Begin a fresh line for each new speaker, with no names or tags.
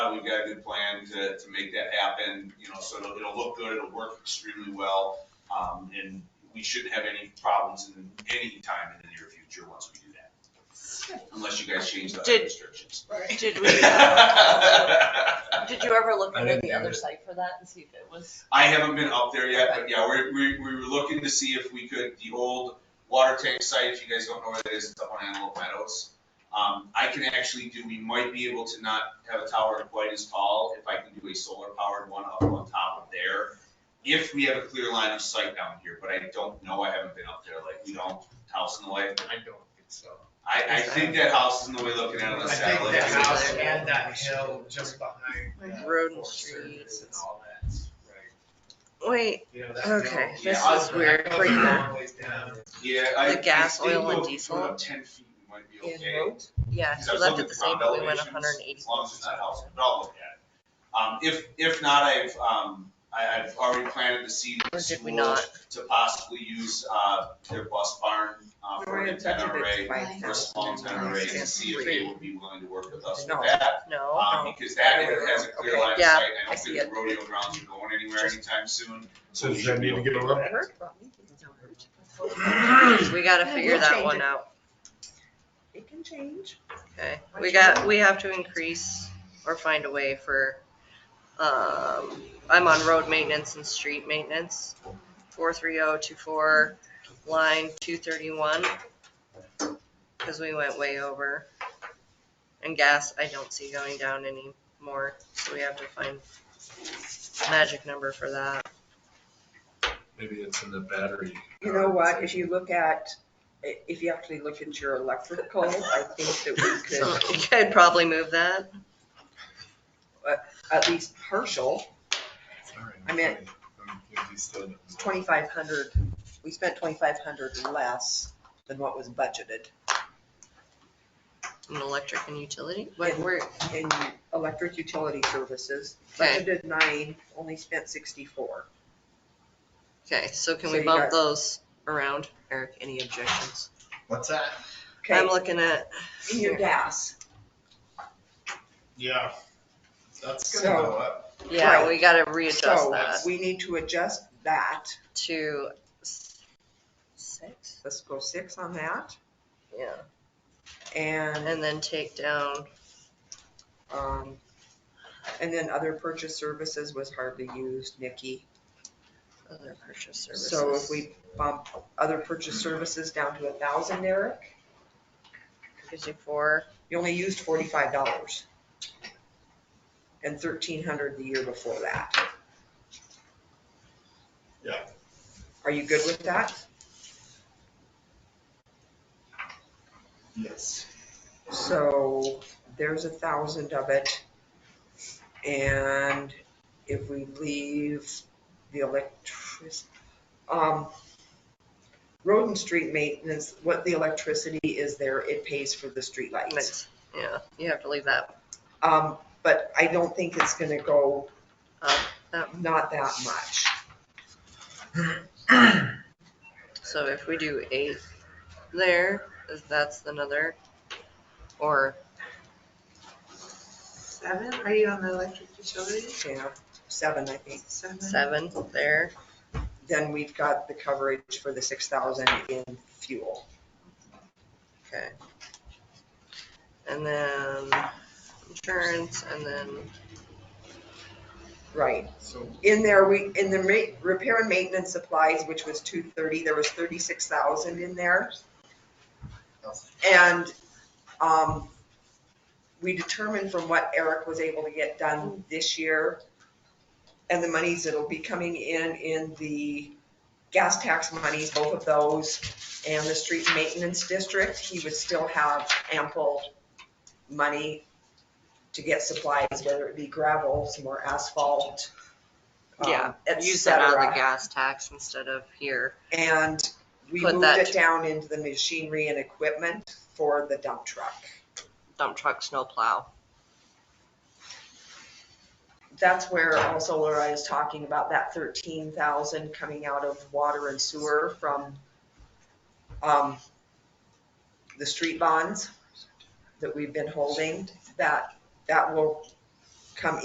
out, we've got a good plan to, to make that happen, you know, so it'll, it'll look good, it'll work extremely well. Um, and we shouldn't have any problems in any time in the near future once we do that, unless you guys change the
Did-
restrictions.
Did we,
I
did you ever look
I
into
didn't
the
do
other
it.
site for that and see if it was?
haven't been up there yet, but yeah, we, we, we were looking to see if we could, the old water tank site, if you guys don't know where that is, it's up on Antelope Meadows. Um, I can actually do, we might be able to not have a tower quite as tall if I can do a solar powered one up on top of there. If we have a clear line of sight down here, but I don't know, I haven't been up there, like, you know, house in the way.
I don't think so.
I, I think that house is in the way looking at it on
I
the
think
satellite.
the
view.
house and that hill just behind. uh,
Road and
Forest
streets.
Service And all that's right.
Wait,
You know, that
Okay,
hill-
this
Yeah,
is
that
weird.
goes a
Freak
long
out.
ways down.
Yeah, I.
The gas,
I think
oil, and
we'll
diesel?
put up Ten feet, we might be
In
okay.
road? yeah,
Because I
we
was
left
looking
it the
at
same,
ground
but we went
elevations,
hundred and eighty.
As long as it's not house, but I'll look at it. Um, if, if not, I've, um, I, I've already planted the seed
Or
in
did we
school
not?
to possibly use, uh, their bus barn, uh, for an
We're gonna touch
antenna
a bit
array,
by
for a small antenna array, and see if they would be willing to work with us
No. Oh,
with that.
No,
Um, because that it has a clear
Okay,
line of
yeah,
sight, I
I
don't
see
think the rodeo grounds are going anywhere anytime soon, so we
Does
should
that
be
need to
able to
get
do
a
that.
we gotta
Yeah,
figure
we'll
that
change
one
it.
out,
It can change.
okay? We got, we have to increase or find a way for, um, I'm on road maintenance and street maintenance. Four three oh two four, line two thirty-one. Cause we went way over. And gas, I don't see going down anymore, so we have to find a magic number for that.
Maybe it's in the battery.
You know what, if you look at, i- if you actually look into your electrical, I think that we
So
could,
I'd probably move that.
at least partial,
Sorry,
I meant-
I'm confused still.
twenty-five hundred, we spent twenty-five hundred less than what was budgeted
An electric and utility,
But
but we're,
in electric utility services.
Okay.
Budgeted nine, only spent sixty-four.
okay, so can
So
we
you
bump
got-
those around? Eric, any objections?
What's that?
Okay,
I'm looking at,
in your gas,
Yeah. That's
So-
gonna go up.
yeah, we gotta readjust
so
that
we need to adjust that,
to s- six,
let's go six on that,
yeah,
and,
and then take down,
um, and then other purchase services was hardly used, Nikki.
other purchase services.
So if we bump other purchase services down to a thousand, Eric,
Gives you four,
you only used forty-five dollars. And thirteen hundred the year before that.
Yeah.
Are you good with that?
Yes.
So there's a thousand of it. And if we leave the electric, um, road and street maintenance, what the electricity is there, it pays for the streetlights.
Nice. yeah, you have to leave that,
Um, but I don't think it's gonna go
Up, up.
not that much.
so if we do eight there, that's another, or
Seven, are you on the electric utility?
Yeah, seven, I think.
Seven.
seven there.
Then we've got the coverage for the six thousand in fuel.
Okay. And then insurance and then,
Right.
So
In there, we, in the ma- repair and maintenance supplies, which was two thirty, there was thirty-six thousand in there. And, um, we determined from what Eric was able to get done this year and the monies that'll be coming in, in the gas tax monies, both of those, and the street maintenance district, he would still have ample money to get supplies, whether it be gravel, some more asphalt,
yeah,
um, et
use that out of the
cetera.
gas tax instead of here.
And we
Put
moved
that-
it down into the machinery and equipment for the dump truck.
Dump truck, snow plow.
that's where also where I was talking about that thirteen thousand coming out of water and sewer from, um, the street bonds that we've been holding, that, that will